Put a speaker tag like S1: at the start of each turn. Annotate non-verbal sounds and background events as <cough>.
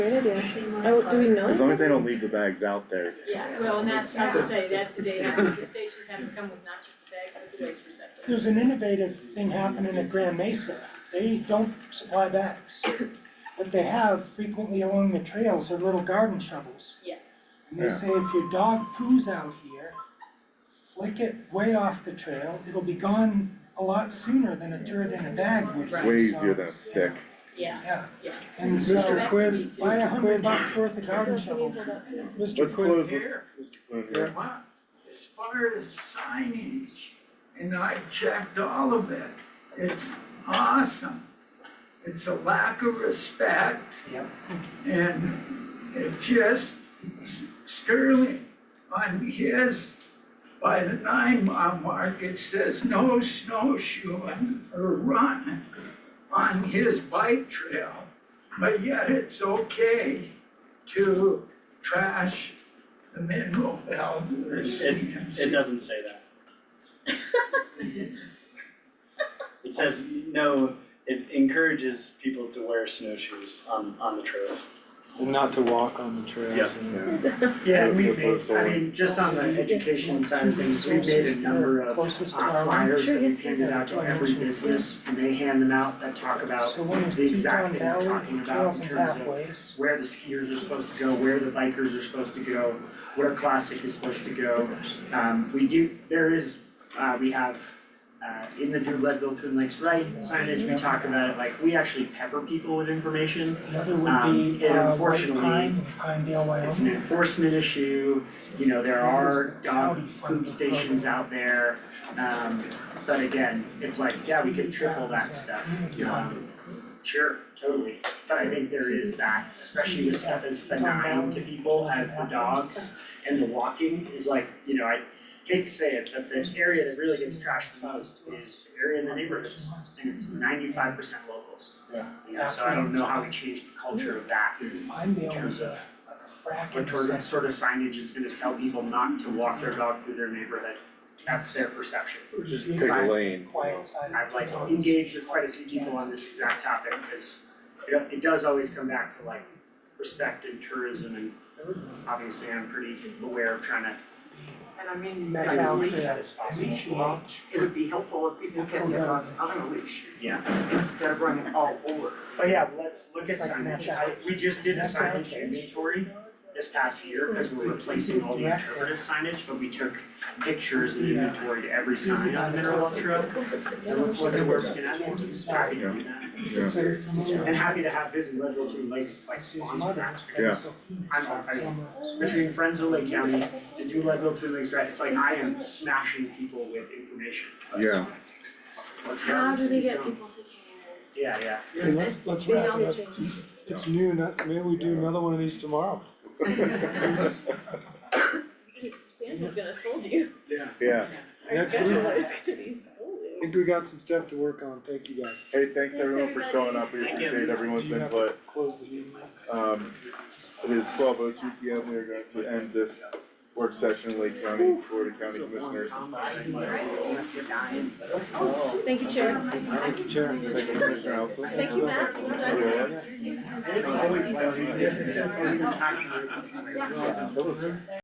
S1: Good idea. Oh, do we know?
S2: As long as they don't leave the bags out there.
S3: Yeah, well, and that's, I would say that they have, the stations have to come with not just the bags, but the waste receptacle.
S4: There's an innovative thing happening at Grand Mesa. They don't supply bags. What they have frequently along the trails are little garden shovels.
S3: Yeah.
S4: And they
S2: Yeah.
S4: say if your dog poos out here, flick it way off the trail, it'll be gone a lot sooner than a turd in a bag would.
S3: Right.
S2: Way
S4: So,
S2: easier than a stick.
S3: Yeah,
S4: Yeah,
S3: Yeah.
S4: and
S3: So
S4: so
S3: that
S5: Quinn,
S3: could be too.
S4: buy a hundred
S5: Quinn.
S4: bucks worth of garden
S1: If we need
S4: shovels.
S1: to look.
S5: Mr.
S2: Let's close
S5: Quinn,
S2: with.
S6: Here,
S2: Mr. Quinn,
S6: Vermont, as far as signage, and I checked all of it, it's awesome. It's a lack of respect.
S4: Yep.
S6: And it just, Sterling, on his, by the nine mile mark, it says no snowshoeing or running on his bike trail. But yet it's okay to trash the mineral well or
S5: it
S6: CMC.
S5: doesn't say that. It says, no, it encourages people to wear snowshoes on, on the trails.
S7: And not to walk on the trails.
S5: Yeah.
S7: and-
S2: yeah.
S8: Yeah, we
S2: Good
S8: made,
S2: postal.
S8: I mean, just on the education side of things, we made a number of uh,
S4: Closest to our line.
S8: flyers
S1: Sure,
S8: that we
S1: yes,
S8: handed out to
S4: yes.
S8: every business, and they hand them out that talk about
S4: So one is
S8: the exact
S4: Teton
S8: thing
S4: Valley,
S8: you're talking about
S4: Trails
S8: in
S4: and
S8: terms of-
S4: Pathways.
S8: where the skiers are supposed to go, where the bikers are supposed to go, where classic is supposed to go. Um, we do, there is, uh, we have, uh, in the Do Leadville Twin Lakes Right signage, we talk about it, like, we actually pepper people with information.
S4: Another would be
S8: Um,
S4: uh White
S8: unfortunately,
S4: Pine, Pinedale, Wyoming.
S8: It's an enforcement issue, you know, there are dog food stations out there, um, but again, it's like, yeah, we could triple that stuff. Um, Sure, totally, but I think there is that, especially with stuff as benign to people as the dogs and the walking is like, you know, I hate to say it, but the area that really gets trashed the most is the area in the neighborhoods, and it's ninety-five percent locals.
S4: Yeah. Mm-hmm.
S8: You know, so I don't know how we change the culture of that in
S4: Pinedale
S8: terms
S4: was
S8: of
S4: a like a frack in
S8: what
S4: the
S8: sort of
S4: section.
S8: sort of signage is gonna tell people not to walk their dog through their neighborhood, that's their perception.
S2: Just pick a lane, you know.
S4: Quiet side of
S8: I've like
S4: the dogs.
S8: engaged with quite a few people on this exact topic, because it it does always come back to like respect and tourism, and obviously I'm pretty aware of trying to
S9: And I mean,
S4: Met
S8: kind
S4: out
S8: of reach
S4: there.
S8: that as possible.
S4: Leash launch.
S9: it would be helpful if people kept their dogs on a leash
S8: Yeah,
S9: instead of running all over.
S8: but yeah, let's look at
S4: It's like
S8: signage,
S4: mapped out.
S8: I- we just did a
S4: Mapped out.
S8: signage inventory this past year, because we're replacing all the interpretive signage, but we took pictures and inventory to every sign on Mineral Wells Trail. And let's look at where we can add more, happy to do that.
S4: Very familiar.
S8: And happy to have Visit Leadville Twin Lakes like
S4: His
S8: sponsor
S4: mother,
S8: that.
S2: Yeah.
S4: so he was
S8: I'm all- I mean,
S4: from, uh,
S8: Between Friends of Lake County, the Do Leadville Twin Lakes, right, it's like I am smashing people with information.
S2: Yeah.
S8: <laughs> Let's go.
S3: How do they get people to care?
S8: Yeah, yeah.
S5: Hey, let's, let's
S1: We
S5: wrap
S1: all
S5: it
S1: need
S5: up.
S1: changes.
S5: It's noon, uh, maybe we do another one of these tomorrow.
S1: Santa's gonna scold you.
S5: Yeah.
S2: Yeah,
S1: Our
S5: Next
S1: scheduler
S5: week.
S1: is gonna be scolding.
S5: I think we got some stuff to work on. Thank you guys.
S2: hey, thanks everyone for
S1: everybody.
S2: showing up, we
S8: Thank you.
S2: appreciate everyone's
S5: You have-
S2: input.
S5: Close the meeting.
S2: Um, it is twelve oh two P M, we are going to end this work session in Lake County, Florida County Commissioners.
S1: Thank you, Chair.
S5: Thank you, Chair.
S2: Thank you, Commissioner Allison.
S1: Thank you, Matt.
S2: Commissioner Rowland.
S8: It's always like we said, it's a-
S2: That was-